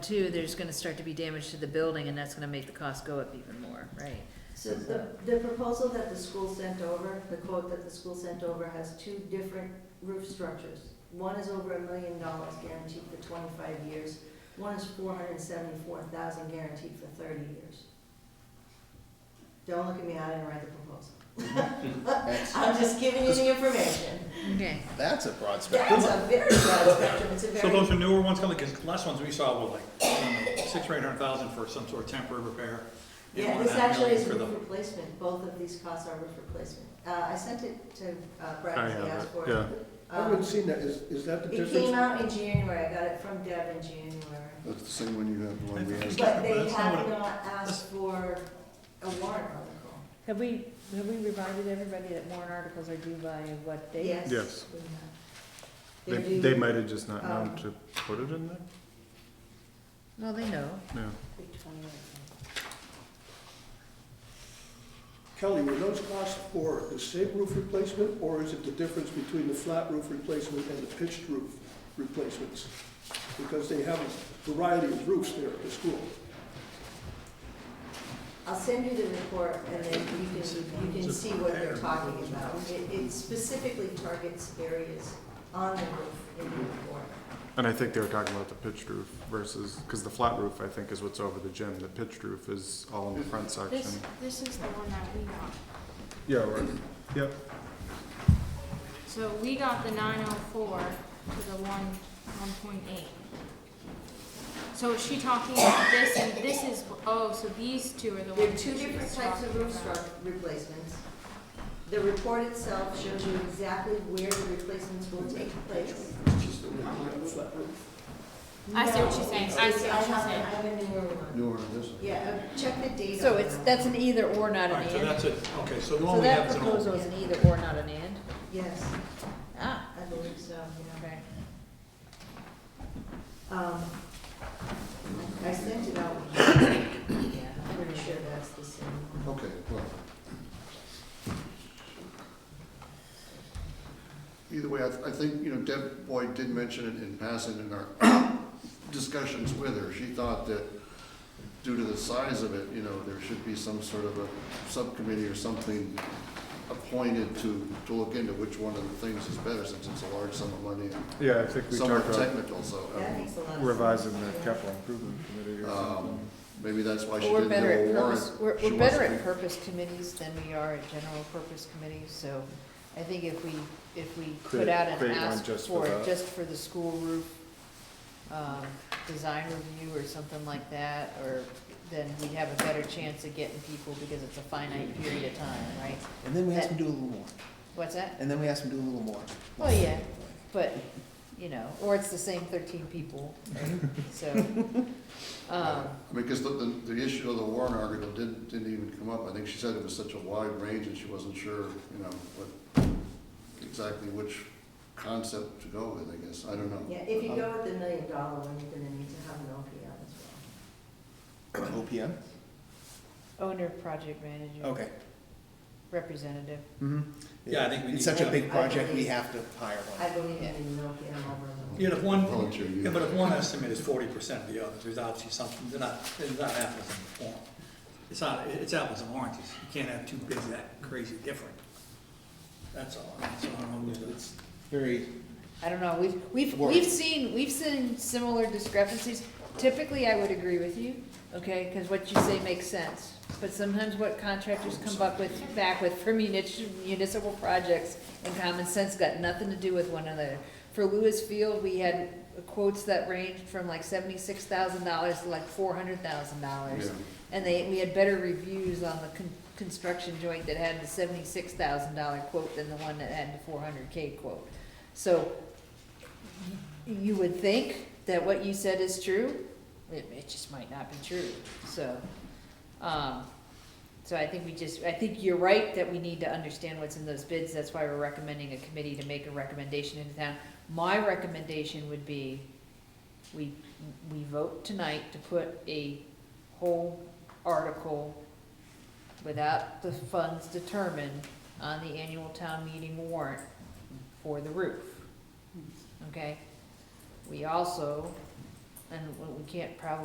Two, there's gonna start to be damage to the building, and that's gonna make the cost go up even more, right? So the, the proposal that the school sent over, the quote that the school sent over has two different roof structures. One is over a million dollars guaranteed for twenty-five years, one is four hundred and seventy-four thousand guaranteed for thirty years. Don't look at me, I didn't write the proposal. That's, I'm just giving you the information. Okay. that's a broad That's spectrum. a very broad spectrum, it's a So very, those are newer ones, kind of like the last ones we saw were like, I don't know, six or eight hundred thousand for some sort of temporary repair. and yeah, one this and a half actually million is for roof the- replacement, both of these costs are roof replacement. Uh, I sent it to uh, Brad, I he have asked it, for it. yeah. Um, I haven't seen that, is, is that the It came difference? out in January, I got it from Deb in January, That's the same one you have, the one we It's had. but different, but they that's not have what it- not asked for a warrant article. Have we, have we reminded everybody that warrant articles are due by what date? Yes. Yes. we have. They, They're due they might have just not known um, to put it in there, Well, they know. no. the 28th. Kelly, were those costs for the same roof replacement, or is it the difference between the flat roof replacement and the pitched roof replacements? Because they have a variety of roofs there at the school. I'll send you the report and then you can, you can see what they're talking about. It, it specifically targets areas on the roof in the report. And I think they were talking about the pitched roof versus, because the flat roof, I think, is what's over the gym, the pitched roof is all in the front This, section. this is the one that we got. Yeah, right, yep. So we got the nine oh four to the one, one point eight. So is she talking about this and this is, oh, so these two are the ones. There are two that she different was types of talking roof about. struct replacements. The report itself shows you exactly where the replacements will take place. Just the one you have, the flat roof. I see what she's saying. I see what she's I have- saying. I have a newer one. Newer than this one. Yeah, uh, check the date. So on it's, that. that's an either or, not All an right, so and? that's it, okay, so the So one we have that is an old. proposal is an either or, not an and? Yes, Ah, I believe so, yeah. okay. Um, I sent it out. Yeah. I'm pretty sure that's the same one. Okay, well. Either way, I, I think, you know, Deb Boyd did mention it in passing in our discussions with her. She thought that due to the size of it, you know, there should be some sort of a subcommittee or something appointed to, to look into which one of the things is better, since it's a large sum of money and Yeah, I think we somewhat talked about technical, so That makes a lot of sense. revising the Yeah. capital improvement committee or um, something. maybe that's why she Well, we're didn't do better a at warrant. purpose, we're, She we're wants better to at be- purpose committees than we are at general purpose committees, so I think if we, if we put Create- out an create one ask just for, for it, that. just for the school roof, um, design review or something like that, or then we would have a better chance of getting people because it's a finite period of time, right? And then we asked them to do a little more. What's that? And then we asked them to do a little more. Well, yeah, but, you know, or it's the same thirteen people, right? So, um, I mean, because the, the, the issue of the Warren article didn't, didn't even come up. I think she said it was such a wide range and she wasn't sure, you know, what, exactly which concept to go with, I guess. I don't know. Yeah, if you go with the million dollar one, you're gonna need to have an OPM as well. OPM? owner, project manager. Okay. Representative. Mm-hmm. Yeah, I think we need It's such a one. big project, we have to hire one. I believe in an OPM over a Yeah, million. if one, Oh, Volunteer yeah, but if one unit. estimate is forty percent of the others, there's obviously something, they're not, it's not apples and form. It's not, it's apples and oranges, you can't have two bids that crazy different. That's all, I mean, so I don't know, who's- It's very, I don't know, we've, we've, Worry. we've seen, we've seen similar discrepancies. Typically, I would agree with you, okay, because what you say makes sense. But sometimes what contractors come up with, back with for munis- municipal projects and common sense got nothing to do with one another. For Lewis Field, we had quotes that ranged from like seventy-six thousand dollars to like four hundred thousand dollars. Yeah. And they, we had better reviews on the con- construction joint that had the seventy-six thousand dollar quote than the one that had the four hundred K quote. So, y- you would think that what you said is true, it, it just might not be true, so, um, so I think we just, I think you're right that we need to understand what's in those bids, that's why we're recommending a committee to make a recommendation into town. My recommendation would be, we, we vote tonight to put a whole article without the funds determined on the annual town meeting warrant for the roof. Okay? We also and we- we can't probably